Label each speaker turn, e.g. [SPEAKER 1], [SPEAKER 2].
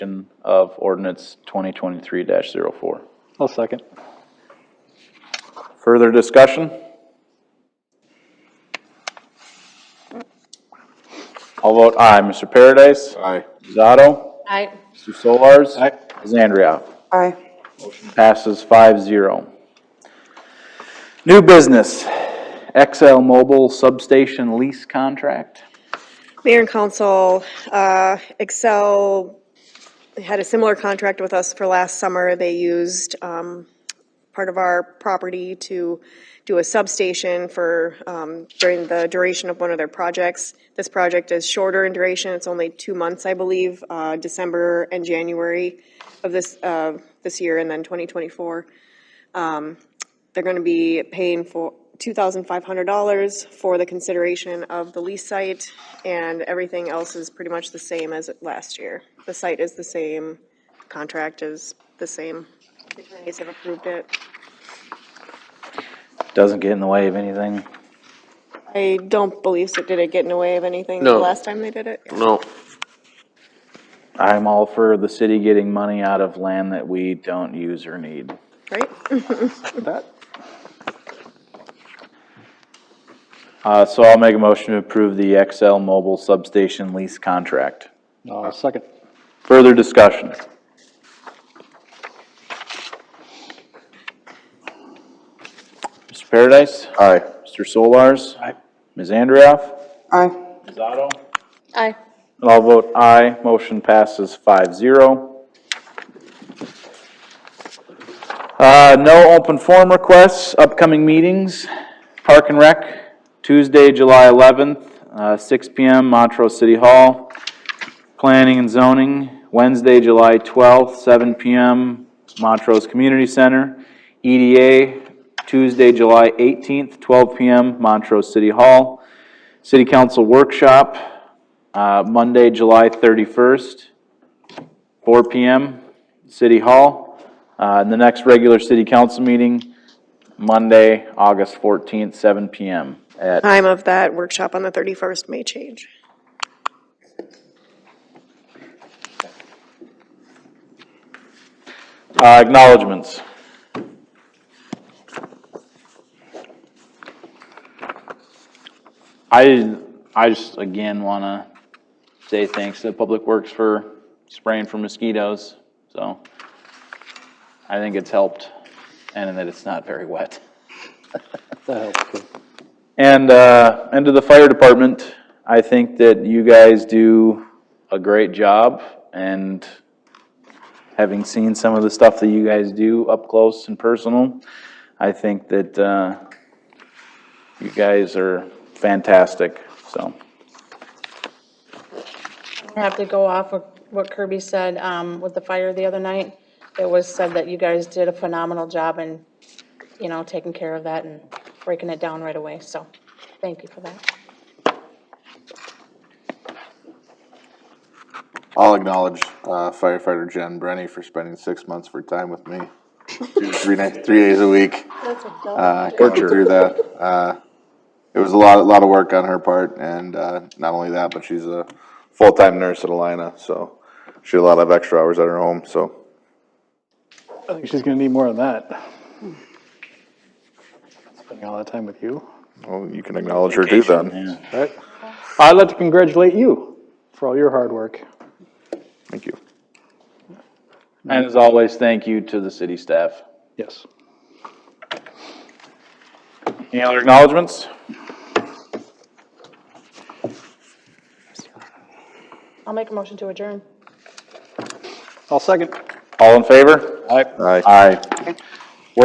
[SPEAKER 1] of ordinance twenty twenty-three 4
[SPEAKER 2] I'll second.
[SPEAKER 1] Further discussion? I'll vote aye. Mr. Paradise?
[SPEAKER 3] Aye.
[SPEAKER 1] Zato?
[SPEAKER 4] Aye.
[SPEAKER 1] Mr. Solars?
[SPEAKER 2] Aye.
[SPEAKER 1] Zandria?
[SPEAKER 5] Aye.
[SPEAKER 1] Passes five zero. New business, XL Mobile Substation Lease Contract.
[SPEAKER 5] Mayor and council, uh, Excel had a similar contract with us for last summer. They used um, part of our property to do a substation for, um, during the duration of one of their projects. This project is shorter in duration, it's only two months, I believe, uh, December and January of this, uh, this year, and then 2024. They're going to be paying for $2,500 for the consideration of the lease site, and everything else is pretty much the same as last year. The site is the same, contract is the same. The attorneys have approved it.
[SPEAKER 1] Doesn't get in the way of anything.
[SPEAKER 5] I don't believe so. Did it get in the way of anything the
[SPEAKER 3] No.
[SPEAKER 5] last time they did it?
[SPEAKER 3] No.
[SPEAKER 1] I'm all for the city getting money out of land that we don't use or need.
[SPEAKER 5] Right?
[SPEAKER 2] That,
[SPEAKER 1] Uh, so I'll make a motion to approve the XL Mobile Substation Lease Contract.
[SPEAKER 2] I'll second.
[SPEAKER 1] Further discussion? Mr. Paradise?
[SPEAKER 3] Aye.
[SPEAKER 1] Mr. Solars?
[SPEAKER 2] Aye.
[SPEAKER 1] Ms. Andrioff?
[SPEAKER 5] Aye.
[SPEAKER 1] Ms. Otto?
[SPEAKER 4] Aye.
[SPEAKER 1] And I'll vote aye. Motion passes five zero. Uh, no open forum requests, upcoming meetings, Park and Rec, Tuesday, July eleventh, uh, six P M, Montrose City Hall. Planning and zoning, Wednesday, July twelfth, seven P M, Montrose Community Center. EDA, Tuesday, July eighteenth, twelve P M, Montrose City Hall. City Council Workshop, uh, Monday, July 31st, 4 PM, City Hall. Uh, And the next regular city council meeting, Monday, August 14th, 7 PM at,
[SPEAKER 5] Time of that workshop on the 31st may change.
[SPEAKER 1] uh, acknowledgements. I, I just, again, want to say thanks to Public Works for spraying for mosquitoes, so I think it's helped, and that it's not very wet.
[SPEAKER 2] That helps. too.
[SPEAKER 1] And, uh, and to the fire department, I think that you guys do a great job, and having seen some of the stuff that you guys do up close and personal, I think that, uh, you guys are fantastic, so.
[SPEAKER 4] I have to go off of what Kirby said um, with the fire the other night. It was said that you guys did a phenomenal job in, you know, taking care of that and breaking it down right away, so thank you for that.
[SPEAKER 3] I'll acknowledge uh, firefighter Jen Brenny for spending six months of her time with me, Two- three nights, three days a week. Uh, going
[SPEAKER 1] Torture.
[SPEAKER 3] through that, uh, it was a lot, a lot of work on her part, and uh, not only that, but she's a full-time nurse at Alina, so she had a lot of extra hours at her home. So
[SPEAKER 2] I think she's gonna need more than that. Spending all that time with you.
[SPEAKER 3] well, you can acknowledge her too. Then
[SPEAKER 2] Right. I'd like to congratulate you for all your hard work.
[SPEAKER 3] thank you.
[SPEAKER 1] And as always, thank you to the city staff.
[SPEAKER 2] Yes.
[SPEAKER 1] Any other acknowledgements?
[SPEAKER 4] I'll make a motion to adjourn.
[SPEAKER 2] I'll second.
[SPEAKER 1] All in favor?
[SPEAKER 2] Aye.
[SPEAKER 3] Aye.
[SPEAKER 1] Aye.